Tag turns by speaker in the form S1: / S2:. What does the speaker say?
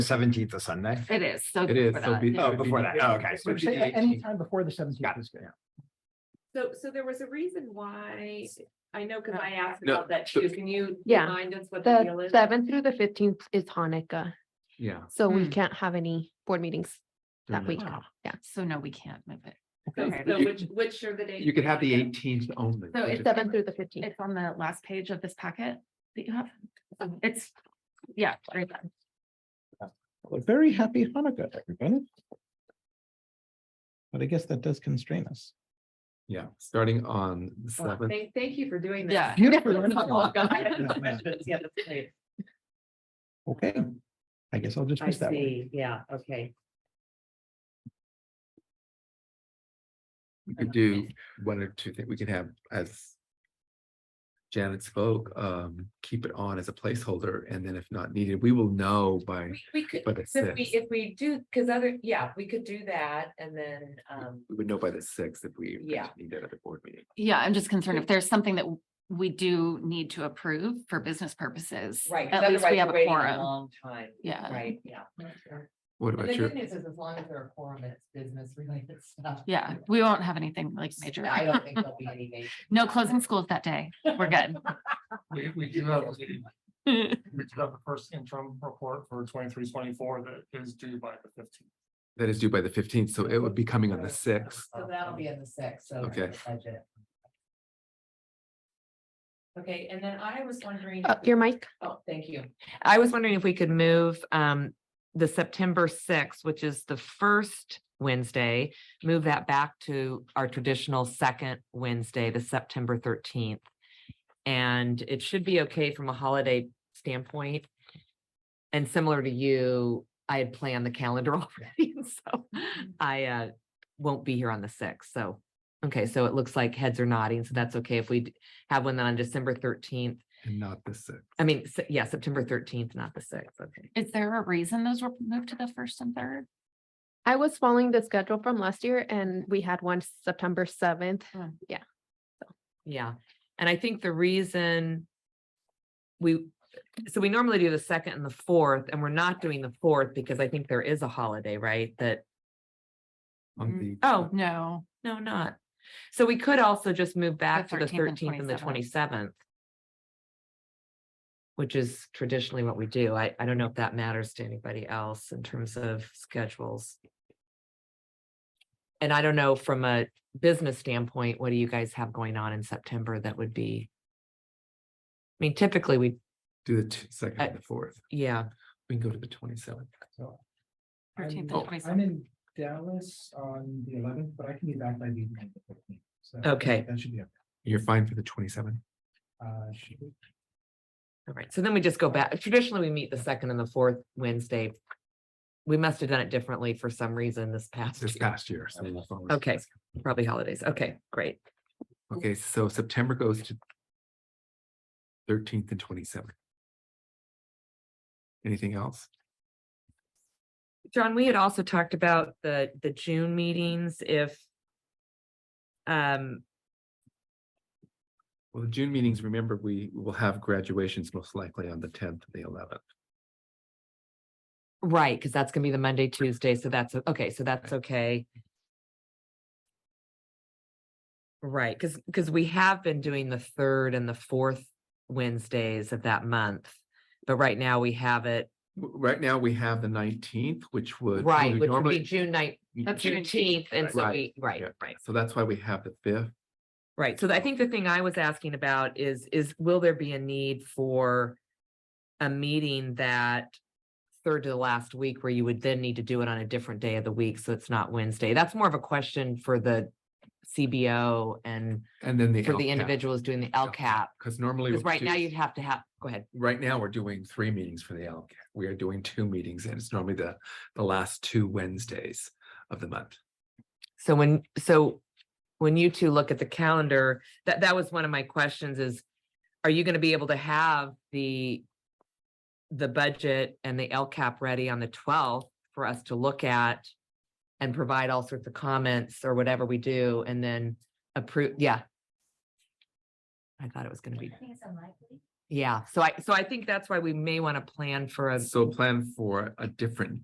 S1: Seventeenth is Sunday.
S2: It is, so.
S3: It is,
S2: for
S3: so
S2: that,
S3: be- uh,
S2: yeah.
S1: Oh,
S3: should be
S1: before
S3: the-
S1: that. Oh, okay. So
S3: should be
S1: just-
S3: the 18th.
S4: Anytime before the seventeenth
S1: Got
S4: is good.
S5: So, so there was a reason why, I know, cause I asked
S3: No,
S5: about that
S3: so-
S5: too, can you
S6: Yeah.
S5: remind us what the deal
S6: The
S5: is?
S6: seventh through the fifteenth is Hanukkah,
S3: Yeah.
S6: so we
S2: Hmm.
S6: can't have any board meetings that
S1: Mm-hmm.
S3: during
S6: week.
S2: Wow.
S6: Yeah.
S2: So no, we can't move it.
S5: So
S2: Okay.
S5: so
S3: You-
S5: which, which are the days?
S3: You could have the
S5: again?
S3: eighteenth only.
S2: So
S3: which
S2: it's
S3: is-
S2: the-
S6: Seventh through the fifteenth.
S2: It's on the last page of this packet that you have. It's, yeah. right there.
S4: Well, Very happy Hanukkah, everybody. But I guess that does constrain us.
S3: Yeah, starting on the
S2: Well,
S3: seventh.
S5: Thank, thank you for doing that.
S2: Yeah.
S4: Beautiful.
S5: Oh, God.
S7: Yeah, that's great.
S4: Okay, I guess I'll just
S7: I
S4: miss that one.
S7: see, yeah, okay.
S3: We could do one or two things. We can have as. Janet spoke, um, keep it on as a placeholder and then if not needed, we will know by,
S5: We- We could,
S3: by the
S5: since we,
S3: sixth.
S5: if we do, cause other, yeah, we could do that and then, um,
S3: We would know by the sixth if we.
S5: Yeah.
S3: Need that at the board meeting.
S2: Yeah, I'm just concerned if there's something that we do need to approve for business purposes.
S5: right. 'cause
S2: At least
S5: otherwise
S2: we have
S5: we're
S2: a
S5: waiting
S2: quorum. Uh,
S7: Long time,
S2: Yeah.
S7: right, yeah. And
S3: What about
S7: the
S3: your,
S7: good news is as long as there are quorum, it's business related stuff.
S2: Yeah, we won't have anything like major.
S7: I don't think there'll be any major.
S2: No closing schools that day. We're good.
S8: We, we do have, the- we do have the first interim report for 23-24 that is due by the fifteenth.
S3: that is due by the fifteenth, so it would be coming on the sixth.
S7: So that'll be in the sixth, so.
S3: Okay.
S7: the budget.
S5: Okay, and then I was wondering,
S6: Uh, your mic?
S5: oh, thank you.
S9: I was wondering if we could move um the September sixth, which is the first Wednesday, move that back to our traditional second Wednesday, the September thirteenth. And it should be okay from a holiday standpoint. And similar to you, I had planned the calendar already, so I uh won't be here on the sixth, so. Okay, so it looks like heads are nodding, so that's okay if we d- have one on December thirteenth.
S3: And not the sixth.
S9: I mean, se- yeah, September thirteenth, not the sixth, okay.
S2: Is there a reason those were moved to the first and third?
S6: I was following the schedule from last year and we had one September seventh.
S2: Mm.
S6: Yeah,
S9: Yeah, and I think the reason we, so we normally do the second and the fourth, and we're not doing the fourth because I think there is a holiday, right? That,
S3: on
S5: Mm-hmm.
S2: Mm.
S3: the-
S9: oh,
S2: No.
S9: no, not. So we could also just move back to
S2: 13th
S9: the
S2: and
S9: thirteenth and the
S2: 27th.
S9: twenty-seventh. Which is traditionally what we do. I, I don't know if that matters to anybody else in terms of schedules. And I don't know from a business standpoint, what do you guys have going on in September that would be? I mean, typically we,
S3: Do the t- second
S5: Uh,
S3: and the fourth.
S9: yeah,
S3: We can go to the twenty-seventh.
S4: So,
S2: 13th and
S4: I'm-
S2: 27th.
S4: I'm in Dallas on the eleventh, but I can be back by the evening. of the 15th. So
S9: Okay.
S4: That should be, okay.
S3: You're fine for the twenty-seventh.
S4: uh, should we-
S9: all right. So then we just go back. Traditionally, we meet the second and the fourth Wednesday. We must have done it differently for some reason this past
S3: this
S9: year.
S3: past year. so we'll follow it.
S9: Okay, probably holidays. Okay, great.
S3: Okay, so September goes to thirteenth and twenty-seventh. Anything else?
S9: John, we had also talked about the, the June meetings if um,
S3: Well, the June meetings, remember, we will have graduations most likely on the tenth and the eleventh.
S9: right, because that's gonna be the Monday, Tuesday, so that's, o- okay, so that's okay. Right, because, because we have been doing the third and the fourth Wednesdays of that month. But right now we have it,
S3: Right now, we have the nineteenth, which would.
S9: right,
S3: we
S9: which would be
S3: normally-
S9: June night,
S2: That's June
S9: Juneteenth, and so we,
S3: Right.
S9: right,
S3: Yeah.
S9: right.
S3: So that's why we have the fifth.
S9: Right, so I think the thing I was asking about is, is will there be a need for a meeting that third to the last week where you would then need to do it on a different day of the week, so it's not Wednesday? That's more of a question for the CBO and
S3: And then the.
S9: for the individuals doing the LCAP.
S3: Because normally.
S9: Because
S3: we
S9: right
S3: do-
S9: now you'd have to have, go ahead,
S3: Right now, we're doing three meetings for the LCAP. We are doing two meetings and it's normally the, the last two Wednesdays of the month.
S9: So when, so when you two look at the calendar, that, that was one of my questions is, are you gonna be able to have the, the budget and the LCAP ready on the twelfth for us to look at and provide all sorts of comments or whatever we do and then approve, yeah. I thought it was gonna be,
S5: think it's unlikely.
S9: Yeah, so I, so I think that's why we may want to plan for a
S3: So plan for a different